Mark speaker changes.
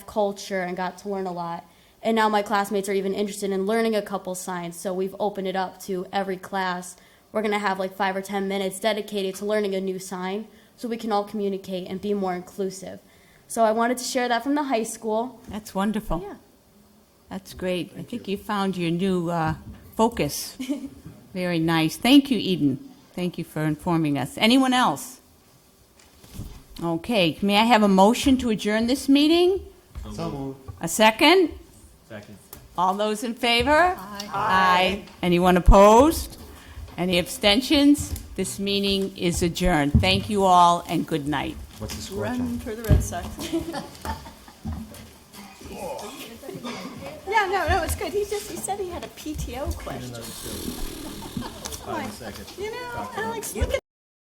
Speaker 1: culture and got to learn a lot. And now my classmates are even interested in learning a couple science, so we've opened it up to every class. We're gonna have like five or ten minutes dedicated to learning a new sign, so we can all communicate and be more inclusive. So I wanted to share that from the high school.
Speaker 2: That's wonderful.
Speaker 1: Yeah.
Speaker 2: That's great. I think you found your new uh, focus. Very nice. Thank you, Eden. Thank you for informing us. Anyone else? Okay, may I have a motion to adjourn this meeting? A second?
Speaker 3: Second.
Speaker 2: All those in favor? Aye. Aye. Anyone opposed? Any abstentions? This meeting is adjourned. Thank you all, and good night.
Speaker 3: What's the score?
Speaker 4: Run for the Red Sox. No, no, no, it's good. He just, he said he had a PTO question.
Speaker 3: Five seconds.
Speaker 4: You know, Alex, look at